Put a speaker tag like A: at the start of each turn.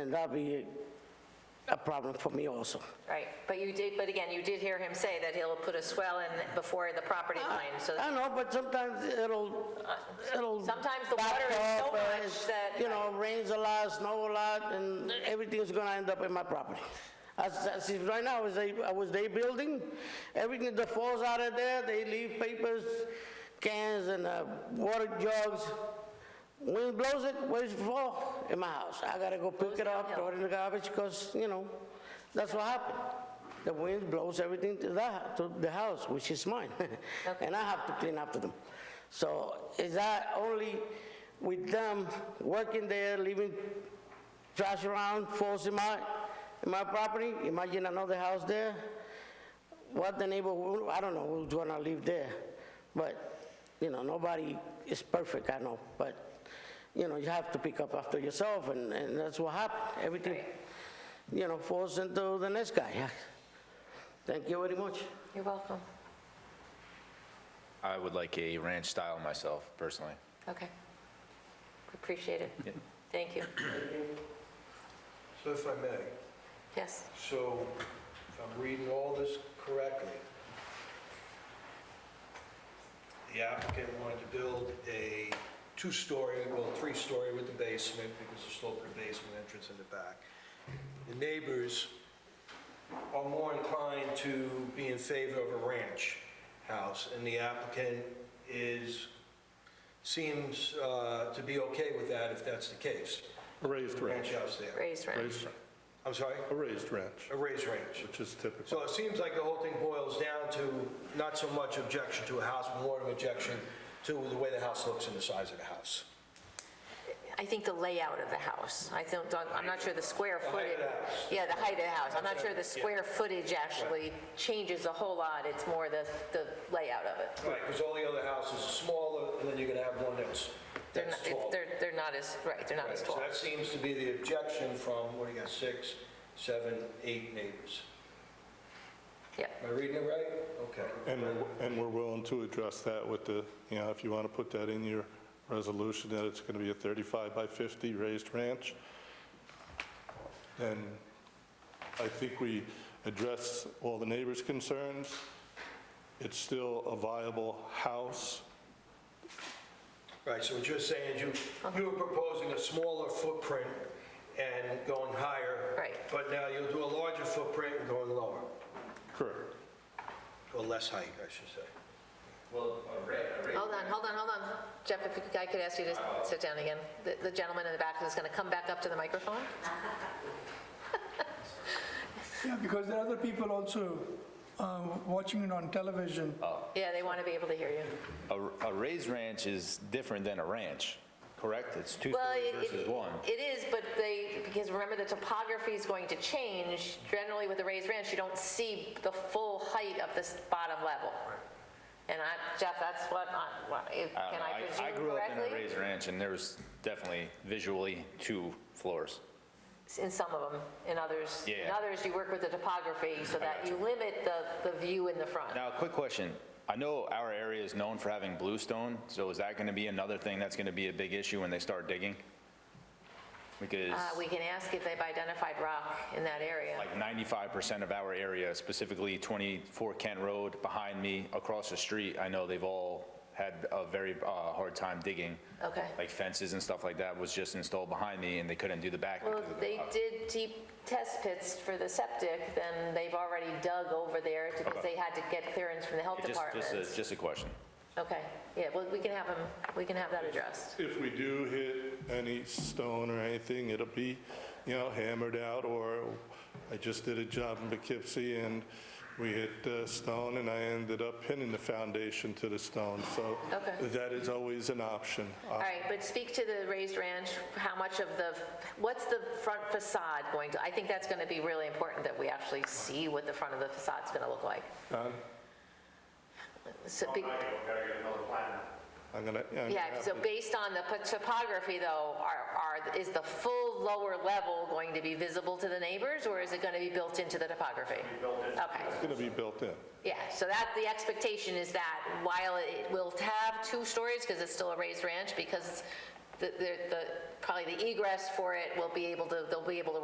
A: And that'll be a problem for me also.
B: Right, but you did, but again, you did hear him say that he'll put a swell in before the property
A: Oh.
B: line, so Uh,
A: I know, but sometimes it'll, it'll.
B: Sometimes the
A: back
B: water is so
A: up, uh,
B: much
A: it's-
B: that-
A: You know, rains a lot, snow a lot, and everything's gonna end up in my property. As, as if right now, as I, I was day building, everything that falls out of there, they leave papers, cans, and uh, water jugs. Wind blows it, where's it fall? In my house. I gotta go pick it up, throw it in the garbage, because, you know, that's what happened. The wind blows everything to that, to the house, which is mine. And I have to clean after them. So is that only with them working there, leaving trash around, falls in my, in my property? Imagine another house there. What the neighbor, will- I don't know who's gonna live there. But, you know, nobody is perfect, I know. But, you know, you have to pick up after yourself and, and that's what happened. Everything, you know, falls into the next guy. Thank you very much.
B: you're welcome.
C: I would like a ranch style myself, personally.
B: Okay. Appreciate it.
C: Yep.
B: Thank you.
D: So if I may,
B: Yes,
D: so if I'm reading all this correctly, the applicant wanted to build a two-story, well, three-story with the basement, because there's still a basement entrance in the back. The neighbors are more inclined to be in favor of a ranch house, and the applicant is, seems uh, to be okay with that if that's the case.
E: A raised ranch,
D: Ranch house there.
B: raised rent.
E: raised,
D: I'm sorry?
E: a raised ranch,
D: A raised ranch.
E: which is typical.
D: So it seems like the whole thing boils down to not so much objection to a house, but more of objection to the way the house looks and the size of the house.
B: I think the layout of the house, I don't, don't- I'm not sure the square
D: height
B: footage.
D: of the house.
B: Yeah, the height of the house. I'm not sure the square footage actually changes a whole lot. It's more the, the layout of it.
D: Right. Because all the other houses are smaller, and then you're gonna have one that's,
B: They're
D: that's
B: not- it's-
D: tall.
B: They're, they're not as, right, they're not as
D: So
B: tall.
D: that seems to be the objection from, what do you got, six, seven, eight neighbors.
B: Yeah,
D: Am I reading it right? Okay.
E: And, we're- and we're willing to address that with the, you know, if you want to put that in your resolution, that it's going to be a 35 by 50 raised ranch, then I think we address all the neighbors' concerns. It's still a viable house.
D: Right, so what you're saying is you, you were proposing a smaller footprint and going higher.
B: Right.
D: But now you'll do a larger footprint and going lower,
E: Correct.
D: or less height, I should say.
B: hold on, hold on, hold on. Jeff, if you- I could ask you to sit down again. The- The gentleman in the back is going to come back up to the microphone.
F: Yeah, because there are other people also um, watching it on television.
B: Yeah, they want to be able to hear you.
C: A a raised ranch is different than a ranch, correct? It's two
B: Well,
C: stories
B: it- it-
C: versus one.
B: It is, but they, because remember, the topography is going to change. Generally, with a raised ranch, you don't see the full height of this bottom level. And I, Jeff, that's what, I- what- if-
C: I don't
B: can
C: know.
B: I presume
C: grew up in a
B: correctly?
C: raised ranch, and there was definitely visually two floors.
B: In some of them, in others. In
C: Yeah.
B: others, you work with the topography so that you limit the, the view in the front.
C: Now, quick question. I know our area is known for having bluestone, so is that going to be another thing that's going to be a big issue when they start digging? Because
B: Uh, We can ask if they've identified rock in that area.
C: like 95% of our area, specifically 24 Kent Road, behind me, across the street, I know they've all had a very uh, hard time digging.
B: Okay.
C: Like fences and stuff like that was just installed behind me, and they couldn't do the back.
B: Well,
C: because
B: if
C: of the
B: they
C: rock.
B: did deep test pits for the septic, then they've already dug over there because they had to get clearance from the health
C: Just-
B: department.
C: Just, a- just a question.
B: Okay, yeah, well, we can have them, we can have that addressed.
E: If we do hit any stone or anything, it'll be, you know, hammered out, or I just did a job in Poughkeepsie, and we hit uh, stone, and I ended up pinning the foundation to the stone, so
B: Okay.
E: that is always an option.
B: All right, but speak to the raised ranch, how much of the, what's the front facade going to, I think that's going to be really important that we actually see what the front of the facade's going to look like.
E: Don,
B: So be-
E: I'm gonna, I'm gonna
B: Yeah,
E: have
B: so
E: to-
B: based on the pot- topography though, are, are, is the full lower level going to be visible to the neighbors or is it going to be built into the topography? Okay,
E: it's gonna be built in.
B: yeah, so that, the expectation is that while it will have two stories, because it's still a raised ranch, because the, the, the- probably the egress for it will be able to, they'll be able to